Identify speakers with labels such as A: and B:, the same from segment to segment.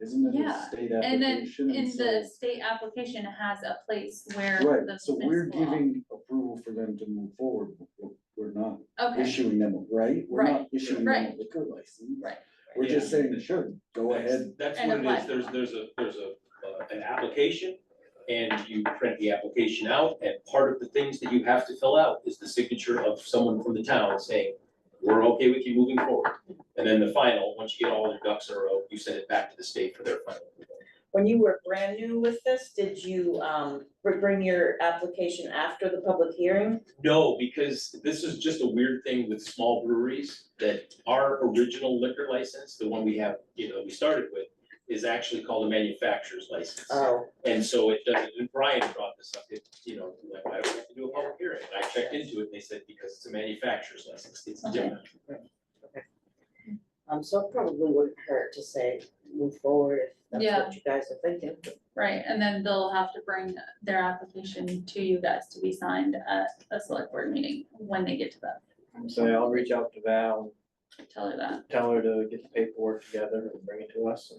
A: Isn't it a
B: Yeah,
A: state
B: and then
A: application?
B: In
A: so-
B: the state application has a place where the
A: Right, so we're
B: municipal-
A: giving approval for them to move forward, but we're- we're not
B: Okay,
A: issuing them, a- right? We're not issuing them a
B: right.
A: liquor license.
B: Right.
A: We're just
C: Yeah.
A: saying, sure, go
C: That's-
A: ahead,
C: That's
B: And
C: what it
B: apply.
C: is, there's, there's a, there's a, uh, an application, and you print the application out, and part of the things that you have to fill out is the signature of someone from the town saying, we're okay with you moving forward. And then the final, once you get all your ducks in a row, you send it back to the state for their final. approval.
D: When you were brand new with this, did you um br- bring your application after the public hearing?
C: No, because this is just a weird thing with small breweries, that our original liquor license, the one we have, you know, we started with, is actually called a manufacturer's license.
D: Oh,
C: And so it doesn't, and Brian brought this up, it, you know, like, why do we have to do a public hearing? And I checked into it, and they said, because it's a manufacturer's license, it's different.
D: um so it probably wouldn't hurt to say move forward if that's
B: Yeah.
D: what you guys are thinking.
B: right, and then they'll have to bring their application to you guys to be signed at a select board meeting when they get to that,
E: So I'll reach out to Val,
B: tell her that.
E: tell her to get the paperwork together and bring it to us.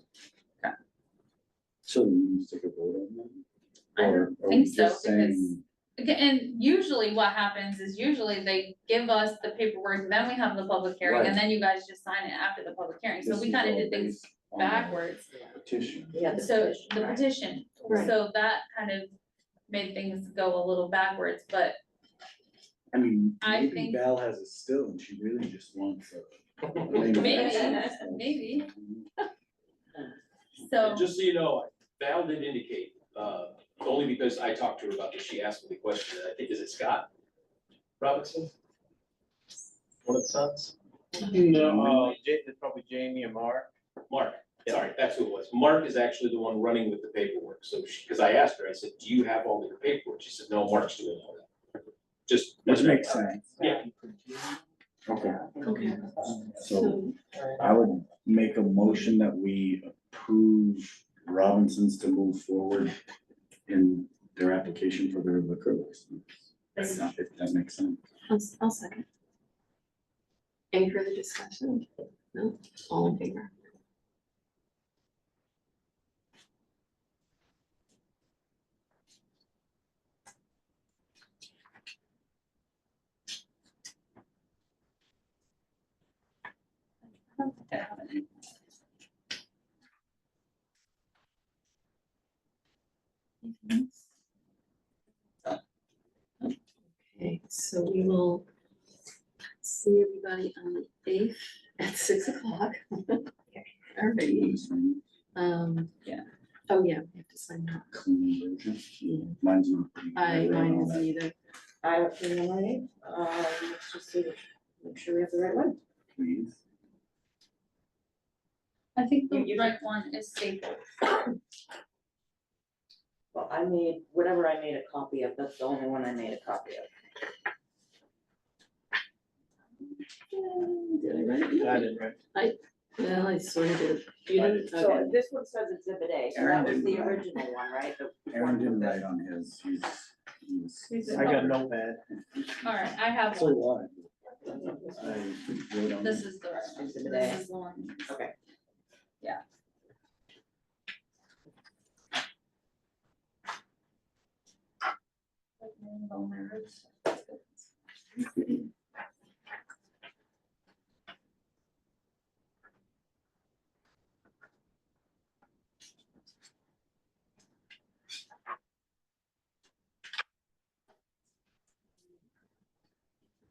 A: so you stick a vote on that?
B: I
A: Or
B: don't
A: are we
B: think so,
A: just saying-
B: because- Okay, and usually what happens is usually they give us the paperwork, then we have the public hearing, and then you guys just sign it after the public hearing, so
A: This
B: we
A: is
B: kinda
A: all
B: did things
A: based on the
B: backwards.
A: Petition.
D: Yeah, the
B: So
D: petition,
B: the
D: right.
B: petition, so that kind of made things go a little backwards, but
A: I mean,
B: I
A: maybe
B: think-
A: Val has it still and she really just wants a. a
B: Maybe,
A: manufacturer's
B: maybe.
A: license.
B: so,
C: And just so you know, Val did indicate, uh, only because I talked to her about this, she asked me the question, I think, is it Scott Robinson? One of the sons?
E: No, uh, Ja- it's probably Jamie and Mark.
C: Mark, sorry, that's who it was. Mark is actually the one running with the paperwork, so she, because I asked her, I said, do you have all your paperwork? She said, no, Mark's doing all that. Just.
A: Which makes sense.
C: Yeah.
A: Okay,
B: okay,
A: so I would make a motion that we approve Robinsons to move forward in their application for their liquor license. If that makes sense.
F: I'll, I'll second. Any further discussion? No, all in favor? Okay, so we will see everybody on the eighth at six o'clock. Alrighty, um,
B: Yeah.
F: oh yeah, we have to sign that.
A: Clean version.
F: Yeah.
A: Mine's not. clean.
F: I,
A: read all
F: mine isn't
A: that.
F: either.
D: I would be all right, um let's just see, make sure we have the right one.
A: Please.
B: I think
D: You-
B: the
D: you-
B: right one is staple.
D: Well, I made, whatever I made a copy of, that's the only one I made a copy of.
F: Did I write it?
E: I didn't write.
F: Well, I sort of did. You
E: I
F: didn't, okay.
D: So this one says exhibit A, so
A: Aaron
D: that was
A: didn't
D: the
A: write.
D: original one, right? The
A: Aaron
D: one
A: didn't write
D: that-
A: on his, he's, he's.
B: He's
E: I got a notepad.
B: Alright, I have
A: So
B: one,
A: what? I wrote on.
B: this is the right one,
D: Exhibit
B: this
D: A.
B: is the one.
D: Okay.
B: Yeah. Like, name of all my roots.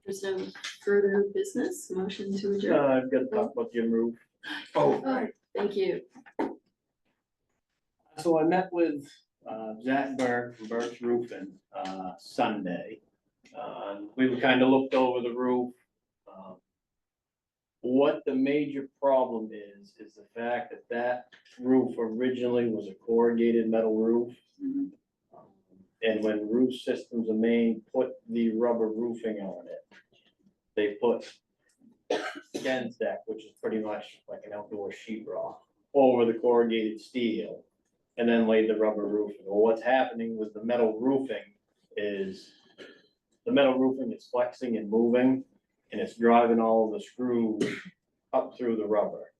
F: There's no further business, motion to
E: Uh,
F: adjourn.
E: I've got to talk about Jim Roof.
C: Oh,
F: Oh, thank you.
E: So I met with uh, Zach Berg from Berg's Roofing uh, Sunday. Uh, We kind of looked over the roof. um, What the major problem is, is the fact that that roof originally was a corrugated metal roof. Um,
A: Mhm.
E: And when Roof Systems of Maine put the rubber roofing on it, they put Gens deck, which is pretty much like an outdoor sheet rock, over the corrugated steel and then laid the rubber roofing. Well, what's happening with the metal roofing is the metal roofing is flexing and moving, and it's driving all the screws up through the rubber.